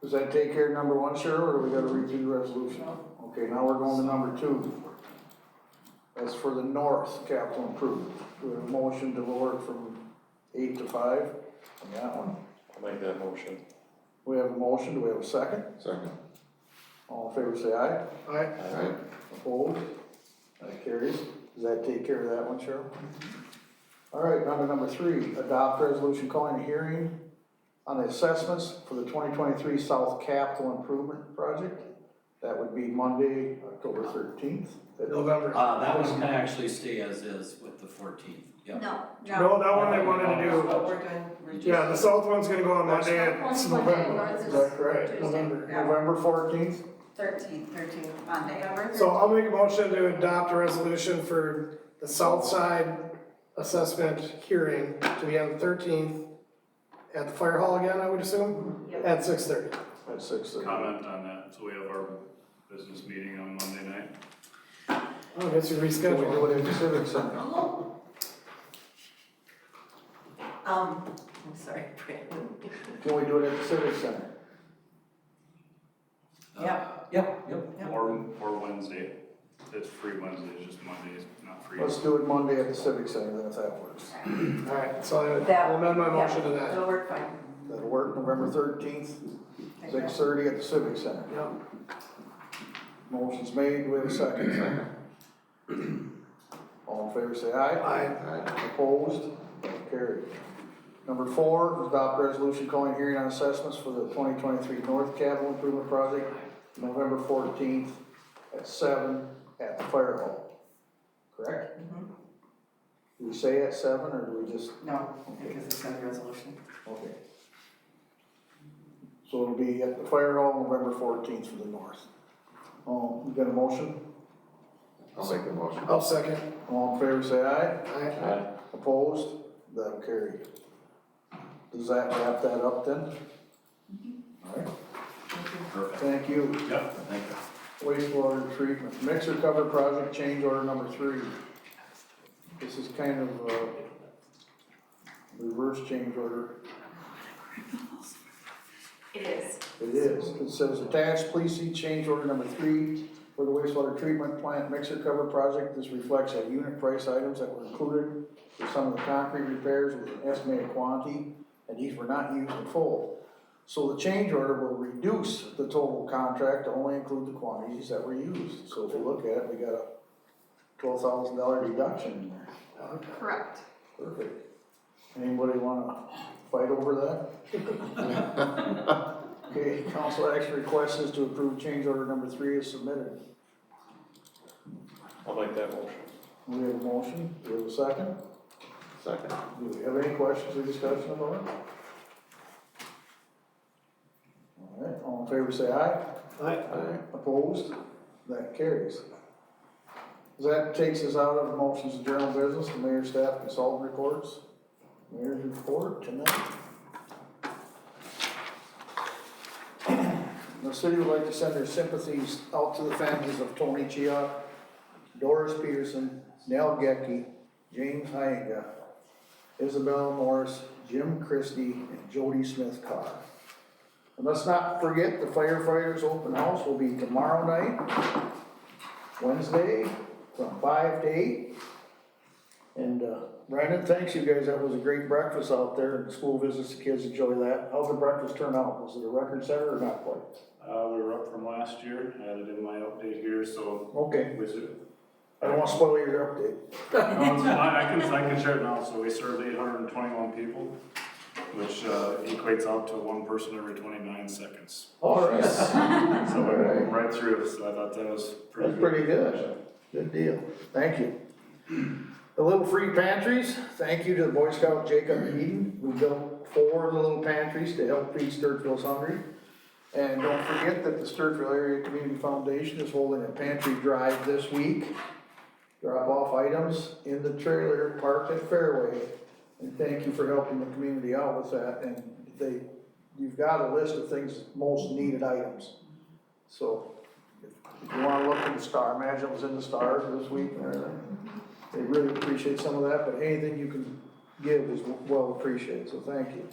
Does that take care of number one, Cheryl, or do we gotta read through the resolution? Okay, now we're going to number two. That's for the north capital improvement. Do we have a motion to lower it from eight to five on that one? I'll make that motion. We have a motion, do we have a second? Second. All in favor, say aye. Aye. Alright, Opposed? That carries. Does that take care of that one, Cheryl? All right, number number three, adopt resolution calling a hearing on the assessments for the twenty twenty-three South Capital Improvement Project. That would be Monday, October thirteenth. November. Uh, that one can actually stay as is with the fourteenth, yeah. No, no. No, that one they wanted to do, What we're doing, we're just. yeah, the south one's gonna go on Monday, it's Postpone Monday, November. yours is Is that correct? Tuesday. November. Yeah. November fourteenth, Thirteenth, thirteenth, Monday. So I'll make a motion to adopt a resolution for the south side assessment hearing to be on the thirteenth at the fire hall again, I would assume, Yep. at six thirty. at six thirty. comment on that, so we have our business meeting on Monday night. Oh, I guess you Can we do reschedule. it in the civic center? Um, I'm sorry, Brandon. Can we do it at the civic center? Yep. Yep, yep. Or, or Wednesday, it's free Wednesday, it's just Monday is not free. Let's do it Monday at the civic center, then if that works. Alright, so I That- will amend my motion to It'll that. work fine. That'll work, November thirteenth, Thank you. six thirty at the civic center. Yep. Motion's made, we have a second. All in favor, say aye. alright, Opposed, carried. Number four, adopt resolution calling hearing on assessments for the twenty twenty-three North Capital Improvement Project, November fourteenth at seven at the fire hall. Correct? Mhm. Do we say at seven, or do we just, No, because it's under resolution. okay. So it'll be at the fire hall, November fourteenth for the north. Um, you got a motion? I'll make the motion. I'll second. All in favor, say aye. Alright, Aye. Opposed? That'll carry. Does that wrap that up then? Alright, Perfect, thank you. Yep. thank you. Wastewater treatment, mixer cover project change order number three. This is kind of a reverse change order. It is. It is. It says attached, please see change order number three for the wastewater treatment plant mixer cover project. This reflects our unit price items that were included for some of the concrete repairs with an estimated quantity, and these were not used in full. So the change order will reduce the total contract to only include the quantities that were used. So if you look at it, we got a twelve thousand dollar deduction in there. Correct. Perfect. Anybody wanna fight over that? Okay, council action request is to approve change order number three is submitted. I'll make that motion. We have a motion, we have a second. Second. Do we have any questions or discussion about it? All right, all in favor say aye. alright, Alright, Opposed? That carries. That takes us out of motions and general business, the mayor, staff, consultant reports. Mayor's report tonight. The city would like to send their sympathies out to the families of Tony Chia, Doris Peterson, Nell Gecky, James Hyenga, Isabel Morris, Jim Christie, and Jody Smith Carr. And let's not forget, the firefighters' open house will be tomorrow night, Wednesday, from five to eight. And, uh, Brandon, thanks you guys, that was a great breakfast out there, and school visits, the kids enjoy that. How'd the breakfast turn out? Was it a record setter or not quite? Uh, we were up from last year, I had it in my update here, so Okay, we, ser- I don't wanna spoil your update. No, it's fine. I can, I can share it now, so we served eight hundred and twenty-one people, which uh, equates out to one person every twenty-nine seconds. All right, that's So we went right through, so I thought that was pretty good. pretty good. good deal. Thank you. The Little Free Pantries, thank you to the Boy Scout Jacob Eden, who built four little pantries to help feed Sturgill's hungry. And don't forget that the Sturgill Area Community Foundation is holding a pantry drive this week. Drop off items in the trailer parked at Fairway. And thank you for helping the community out with that, and they, you've got a list of things, most needed items. So, if you wanna look in the star, imagine it was in the stars this week uh, and everything. They really appreciate some of that, but anything you can give is well appreciated, so thank you.